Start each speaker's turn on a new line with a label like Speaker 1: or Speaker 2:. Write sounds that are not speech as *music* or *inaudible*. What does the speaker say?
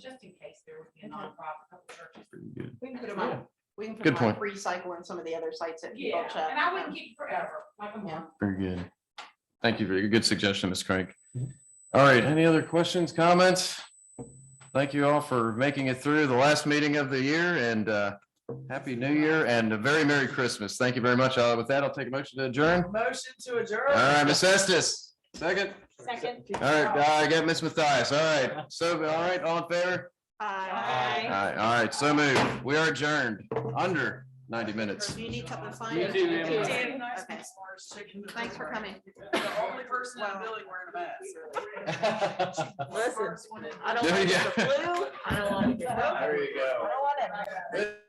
Speaker 1: just in case there would be a nonprofit, couple churches.
Speaker 2: Pretty good.
Speaker 3: We can put them
Speaker 2: Yeah.
Speaker 3: on, we can put
Speaker 2: Good
Speaker 3: them on
Speaker 2: point.
Speaker 3: recycle in some of the other sites that people
Speaker 1: Yeah,
Speaker 3: check. Um,
Speaker 1: and I wouldn't keep forever, like a month.
Speaker 2: Very good. Thank you for your good suggestion, Ms. Crank. All right, any other questions, comments? Thank you all for making it through the last meeting of the year and uh, Happy New Year and a very Merry Christmas. Thank you very much. Uh, With that, I'll take a motion to adjourn.
Speaker 4: Motion to adjourn.
Speaker 2: All right, Ms. Estes, second.
Speaker 5: Second.
Speaker 2: All right, uh, I got Ms. Matthias. All right, so, all right, all in favor?
Speaker 3: Aye.
Speaker 2: All right, all right, so moved. We are adjourned under ninety minutes.
Speaker 3: Do you need something signed?
Speaker 4: You too, Emma.
Speaker 3: You
Speaker 4: Damn
Speaker 3: Okay. Thanks for coming.
Speaker 4: The only person in the building wearing a
Speaker 3: *laughs*
Speaker 4: mask.
Speaker 5: Listen,
Speaker 1: First one is-
Speaker 5: I don't
Speaker 2: There
Speaker 5: like
Speaker 2: you
Speaker 5: the
Speaker 2: go.
Speaker 1: *laughs*
Speaker 5: flu. I don't like the.
Speaker 2: *laughs* There you
Speaker 5: I don't want it.
Speaker 2: go.